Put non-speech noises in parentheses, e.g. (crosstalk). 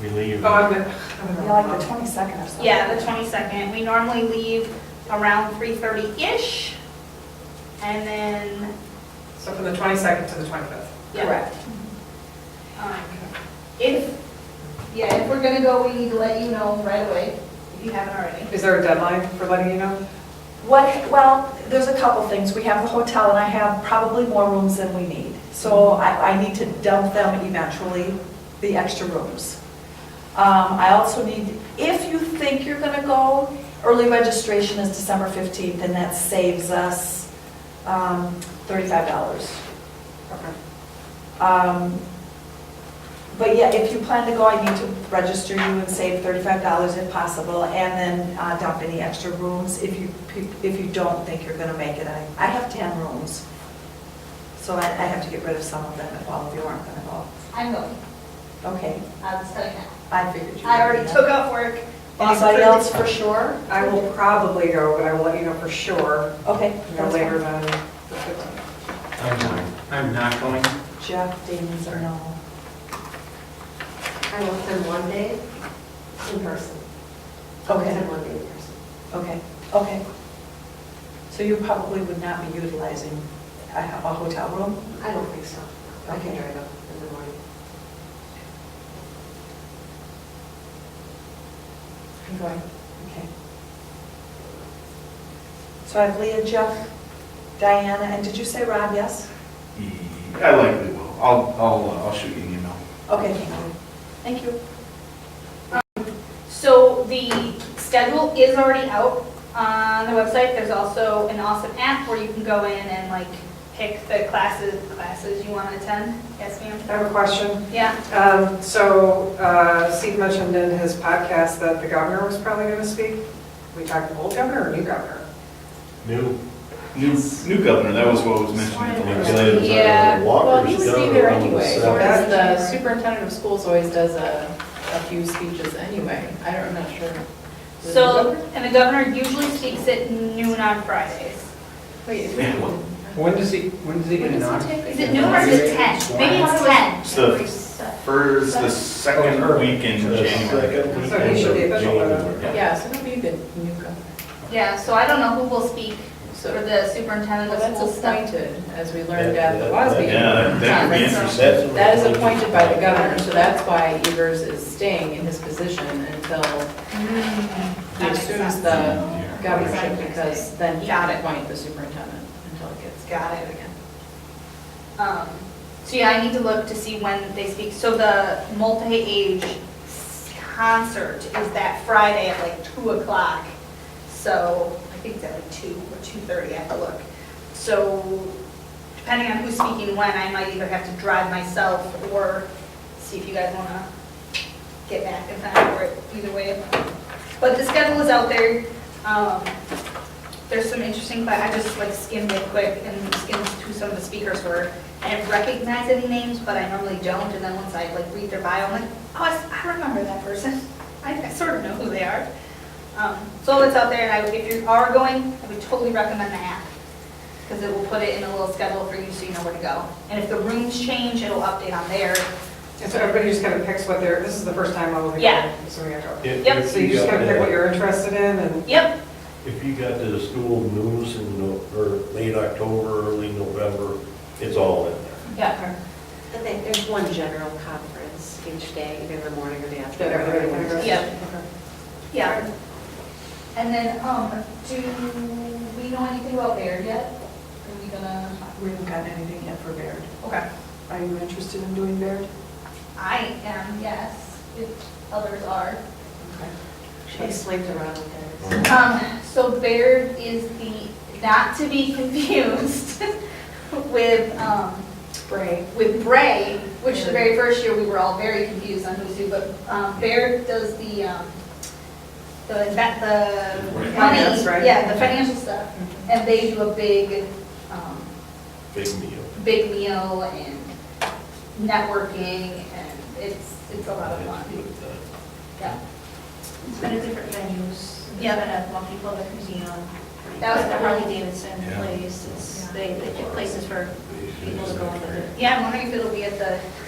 We leave. Oh, I'm good. Yeah, like the 22nd or something. Yeah, the 22nd. We normally leave around 3:30-ish. And then, So from the 22nd to the 25th. yeah. Correct. um, If, yeah, if we're gonna go, we need to let you know right away. If you haven't already. Is there a deadline for letting you know? What, well, there's a couple things. We have the hotel and I have probably more rooms than we need. So I, I need to dump them eventually, the extra rooms. Um, I also need, if you think you're gonna go, early registration is December 15th and that saves us um, $35. Okay. Um, But yeah, if you plan to go, I need to register you and save $35 if possible, and then uh, dump any extra rooms if you, if you don't think you're going to make it. I I have 10 rooms, so I I have to get rid of some of them if all of you aren't going to go. I'm going, Okay, I'll just tell you now. I figured you. I already would. took off work. Anybody else for sure? I will probably go, but I will let you know for sure, Okay. no that's later fine. than the 15th. I'm not, I'm not going. Jeff, Damon's or no? I will spend one day in person. Okay. Spend one day in person. Okay, okay. So you probably would not be utilizing a a hotel room? I don't think so. I can Okay. drive up in the morning. I'm going, okay. So I have Leah, Jeff, Diana, and did you say Rob, yes? I likely will. I'll, I'll, uh, I'll shoot you an email. Okay, thank you. Thank you. So the schedule is already out on the website. There's also an awesome app where you can go in and like pick the classes, classes you want to attend. Yes, ma'am? I have a question. Yeah, Um, So uh, Steve mentioned in his podcast that the governor was probably going to speak. We talking old governor or new governor? New. New, new governor, that was what was mentioned at the last. uh, Yeah, well, he was Walker's there done anyway, with whereas that. the superintendent of schools always does a, a few speeches anyway, I don't, I'm not sure. so, and the governor usually speaks at noon on Fridays. Wait, is it? When does he, when does he get When does knocked? he take? Is it noon or is it 10? Maybe it's 10. It's the first, the second Oh, weekend in January. January. So he should be official by then. Yeah, so it'll be the new governor. Yeah, so I don't know who will speak for So, the superintendent well, of schools that's stuff. appointed, as we learned at the WASB. Yeah, that- that would be interesting. That is appointed by the governor, so that's why Evers is staying in his position until Mm-hmm. he That makes assumes sense. the governorship, because then he can appoint the superintendent until it gets. Got it. Um, So yeah, I need to look to see when they speak. So the multi-age concert is that Friday at like 2 o'clock. So I think it's at like 2 or 2:30, I have to look. So depending on who's speaking when, I might either have to drive myself or see if you guys want to get back in time for it, either way. But the schedule is out there. Um, There's some interesting, but I just like skimmed it quick and skimmed who some of the speakers were. I didn't recognize any names, but I normally don't, and then once I like read their bio, I'm like, oh, I s- I remember that person. I I sort of know who they are. Um, So it's out there, and I- if you are going, I would totally recommend the app, because it will put it in a little schedule for you so you know where to go. And if the rooms change, it'll update on there. And so everybody just kind of picks what they're, this is the first time I will be Yeah. going, so we gotta If- Yep. go. if So you just got kind of pick what that- you're interested in and Yep, If you got to the school news in, no- or late October, early November, it's all in there. yeah. But they- there's one general conference each day, either in the morning or the that afternoon. everybody wants. Yep. Yeah. And then, um, do we know anything about Baird yet? Are we gonna? We haven't gotten anything yet for Baird. Okay. Are you interested in doing Baird? I am, yes, if others are. I slept around with her. Um, so Baird is the, not to be (laughs) confused with, um, Spray. with Bray, which the very first year, we were all very confused on who's who, but, um, Baird does the, um, the, that, the money. Finance, right? Yeah, the financial stuff, and they do a big, um, Big meal. big meal and networking, and it's, it's a lot of fun. uh, Yeah. It's been at different venues. Yeah. It's been at Monkey Public Museum. That was It's the at Harley. Harley Davidson Yeah. place. It's, they, they get places for people to go and visit. Yeah, I'm wondering if it'll be at the